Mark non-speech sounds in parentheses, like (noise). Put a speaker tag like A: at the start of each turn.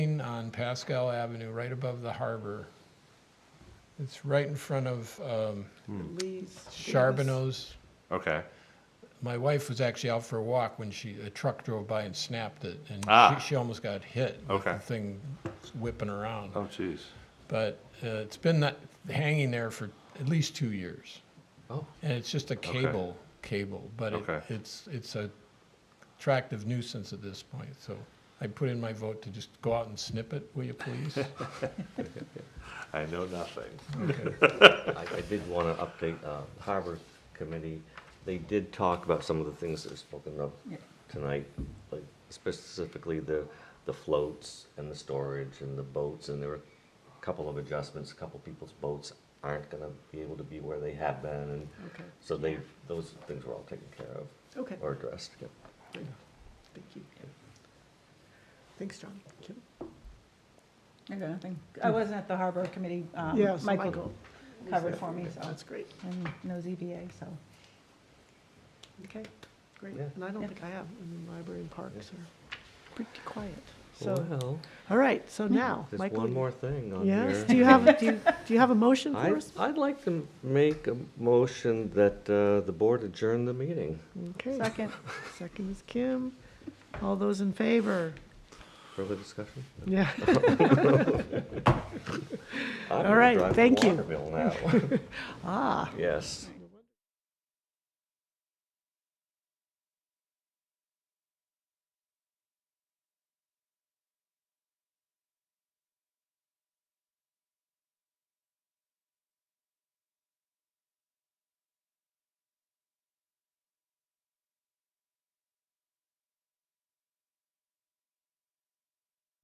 A: on Pascal Avenue, right above the harbor. It's right in front of um,
B: Hmm.
C: Lee's.
A: Charbonneau's.
D: Okay.
A: My wife was actually out for a walk when she, a truck drove by and snapped it, and
D: Ah.
A: she, she almost got hit. with
D: Okay.
A: The thing whipping around.
D: Oh, jeez.
A: But uh, it's been that- hanging there for at least two years.
B: Oh.
A: And it's just a cable, cable, but it-
D: Okay.
A: it's, it's a attractive nuisance at this point, so I put in my vote to just go out and snip it, will
D: (laughs)
A: you please?
D: I know nothing.
A: Okay.
B: I, I did want to update uh, Harbor Committee. They did talk about some of the things that are spoken of tonight, like specifically the, the floats and the storage and the boats, and there were a couple of adjustments. A couple people's boats aren't going to be able to be where they have been, and
C: Okay,
B: so they, those things were all taken care of
C: okay,
B: or addressed.
C: good. Thank you. Thanks, John. Kim?
E: I got nothing. I wasn't at the harbor committee. um,
C: Yes,
E: Michael covered
C: Yeah,
E: for me, so,
C: That's great.
E: and no ZBA, so.
C: Okay, great.
B: Yeah.
C: And I don't
E: Yeah.
C: think I have, I mean, library and parks are pretty quiet. So,
B: Well,
C: all right, so now,
B: there's
C: Michael.
B: one
C: you-
B: more thing on here.
C: Yes, do you
B: (laughs)
C: have, do you, do you have a motion
B: I,
C: for us?
B: I'd like to make a motion that uh, the board adjourn the meeting
C: Okay,
E: Second,
C: second is Kim. All those in favor?
B: for the discussion.
C: Yeah.
B: I'm
C: All
B: gonna
C: right,
B: drive to
C: thank you.
B: Waterville now. (laughs)
C: Ah.
B: Yes.